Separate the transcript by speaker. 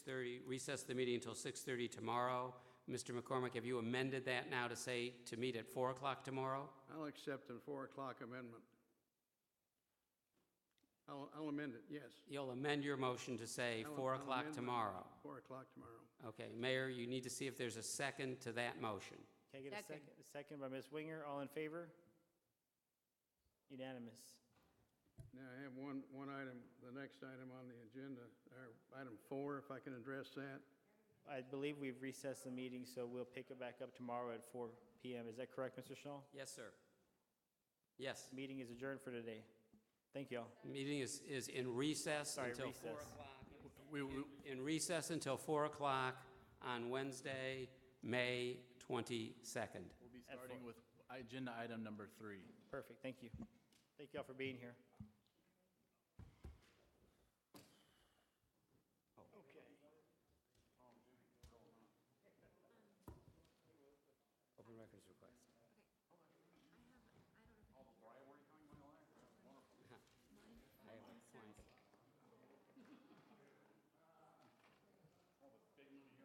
Speaker 1: recess the meeting until 6:30 tomorrow. Mr. McCormick, have you amended that now to say to meet at 4 o'clock tomorrow?
Speaker 2: I'll accept the four o'clock amendment. I'll, I'll amend it, yes.
Speaker 1: You'll amend your motion to say
Speaker 2: I'll-
Speaker 1: 4
Speaker 2: I'll
Speaker 1: o'clock
Speaker 2: amend my-
Speaker 1: tomorrow.
Speaker 2: Four o'clock tomorrow.
Speaker 1: Okay, Mayor, you need to see if there's a second to that motion.
Speaker 3: Can I get a
Speaker 4: Second.
Speaker 3: second, a second by Ms. Winger? All in favor? Unanimous.
Speaker 2: Now, I have one, one item, the next item on the agenda, or item four, if I can address that.
Speaker 3: I believe we've recessed the meeting, so we'll pick it back up tomorrow at four PM. Is that correct, Mr. Schnall?
Speaker 1: Yes, sir. Yes,
Speaker 3: Meeting is adjourned for today. Thank you all.
Speaker 1: meeting is, is in recess
Speaker 3: Sorry,
Speaker 1: until
Speaker 3: recess.
Speaker 1: We will. In recess until 4 o'clock on Wednesday, May 22nd.
Speaker 5: We'll be
Speaker 3: At four.
Speaker 5: starting with agenda item number three.
Speaker 3: Perfect, thank you. Thank you all for being here.